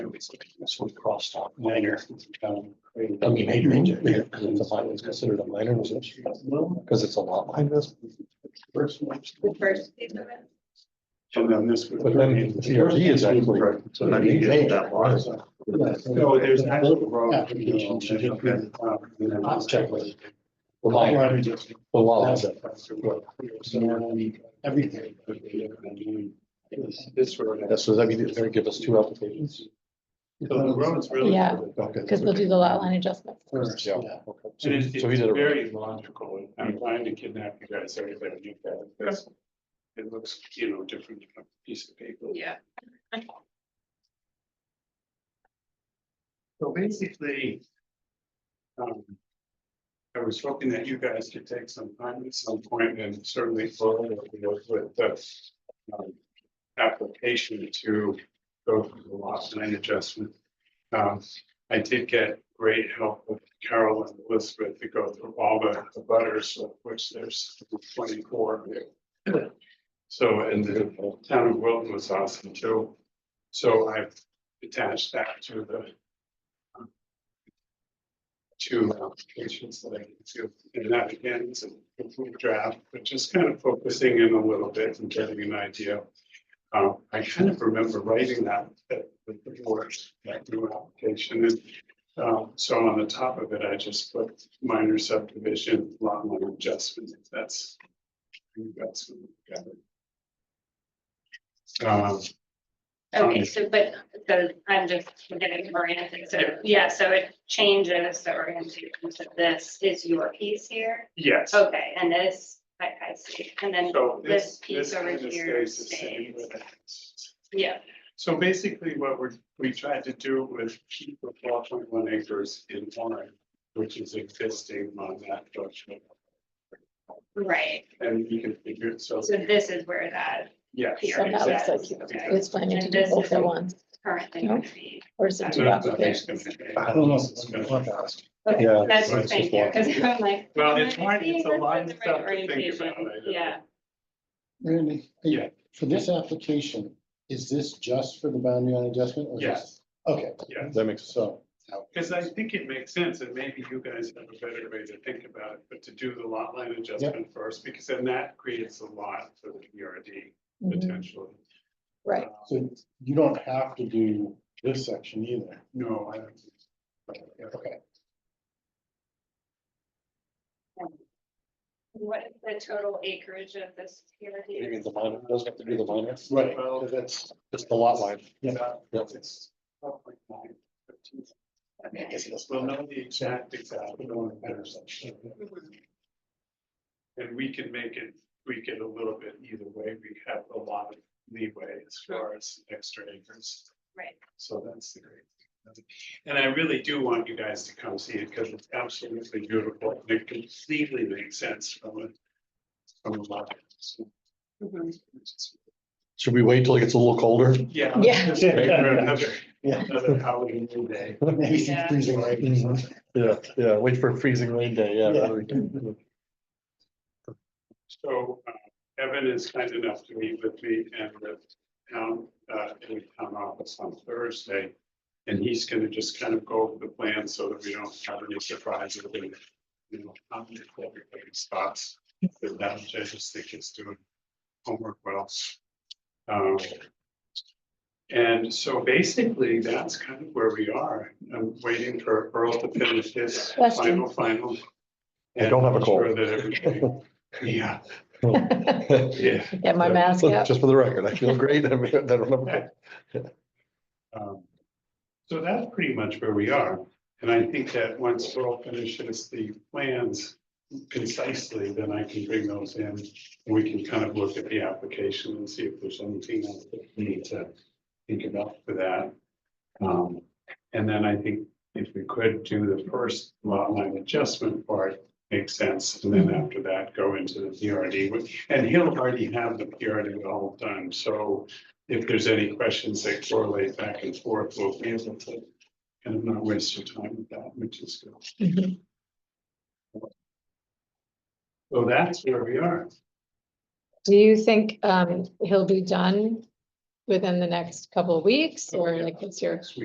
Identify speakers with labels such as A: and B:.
A: it's this one crossed off minor. um, I mean, major, major, major, because it's a minor, it's considered a minor, isn't it? because it's a lot like this.
B: The first piece of it.
C: And then this. would-
A: But then the TRD is actually.
C: Right, So then you get that line. No, there's actual road.
A: Application should just be- I'll check with
C: The
A: you. The law, the law has it.
C: Everything. This road.
A: That's what I mean, it's gonna give us two applications.
C: So the road's really.
D: Yeah.
A: Okay.
D: Because we'll do the lot line adjustment.
C: First,
A: Yeah.
C: yeah.
A: okay. So
C: And it's,
A: so he
C: it's
A: did it right.
C: very logical. I'm trying to kidnap you guys every time you do that. That's- It looks, you know, different from a piece of paper.
B: Yeah.
C: So basically. Um. I was hoping that you guys could take some time at some point and certainly follow up with with the. um, Application to go through the loss line adjustment. Um, I did get great help with Carol and Elizabeth to go through all the the butters, of which there's twenty-four. So, and the town of Wilton was awesome too. So I've attached that to the um, two applications that I can do. And that again is a complete draft, but just kind of focusing in a little bit and getting an idea. Um, I kind of remember writing that, that, with the board, that new application and. Um, so on the top of it, I just put minor subdivision, lot line adjustment, if that's. I think That's. what we got. Um,
B: Okay, so, but, so I'm just getting oriented, so, yeah, so it changes the orientation, so this is your piece here,
C: yes.
B: okay, and this, I, I see, Oh, and then,
C: So
B: this
C: this,
B: piece
C: this
B: over
C: kind of
B: here
C: stays the same.
B: stays.
C: with it.
B: yeah,
C: So basically what we're, we tried to do was keep the four point one acres in line, which is existing on that structure.
B: right,
C: And you can figure it, so,
B: so this is where that
C: yeah.
B: here.
D: So that looks like
C: exactly.
B: Okay.
D: It's planning to do both at once,
B: currently would be.
D: or is it
C: So
D: two
C: nothing's
D: applications?
C: gonna change.
A: I don't know.
C: This is gonna-
B: Okay,
A: Yeah,
B: That's
A: so
B: the
A: it's just
B: thing, yeah,
A: one.
B: because I'm like.
C: Well, it's
B: I
C: hard-
B: see
C: it's a
B: this is
C: line
B: the right
C: stuff to think
B: orientation.
C: about, I know.
B: Yeah,
E: Randy,
C: Yeah.
E: hey, for this application, is this just for the boundary line adjustment? or is
C: Yes,
E: this- Okay,
C: yeah,
A: That makes sense.
E: so,
C: because I think it makes sense, and maybe you guys have a better way to think about it, but to do the lot line adjustment first, because then that creates a lot for the PRD
D: Mhm,
C: potentially.
D: Right,
E: so you don't have to do this section either.
C: No, I don't. think so.
E: Okay,
B: what is the total acreage of this here?
A: You mean the minor, doesn't have to do the minor,
E: right, 'cause that's,
A: it's the lot line.
E: Yeah.
A: Yep.
C: It's 12.9, 13.
B: Okay.
C: We'll know the exact, exact, we know the better section. And we can make it, tweak it a little bit either way, we have a lot of leeway as far as extra acres.
B: Right.
C: So that's the great. thing. And I really do want you guys to come see it because it's absolutely beautiful, and it completely makes sense from a. From a lot. So,
D: Mm-hmm.
B: Mhm.
C: it's-
A: Should we wait till it gets a little colder?
C: Yeah.
D: Yeah.
C: Just wait for another-
E: Yeah.
C: Another Halloween day.
E: maybe some
B: Yeah.
E: freezing right.
A: Mhm. Yeah, yeah, wait for a freezing rain day, yeah.
E: Yeah.
A: that'd be-
C: So uh, Evan is kind enough to meet with me and the town, uh, in the town office on Thursday. And he's gonna just kind of go over the plan so that we don't have any surprises and, you know, how many everybody's thoughts. But that, I just think it's doing homework well. Um, And so basically, that's kind of where we are. I'm waiting for Earl to finish his final,
D: Questions?
C: final.
A: I don't have a cold.
C: And I'm sure that everything- Yeah. Yeah.
D: get my mask
A: So,
D: up.
A: Just for the record, I feel great, I mean, I don't know.
C: Um, So that's pretty much where we are, and I think that once Earl finishes the plans concisely, then I can bring those in. And we can kind of look at the application and see if there's anything else that we need to think about for that. Um, and then I think if we could do the first lot line adjustment part, makes sense, and then after that, go into the PRD. which- And he'll already have the PRD all done, so if there's any questions that correlate back and forth, we'll be able to. Kind of not waste your time with that, which is good.
D: Mhm.
C: So that's where we are.
D: Do you think um he'll be done within the next couple of weeks, or like what's your?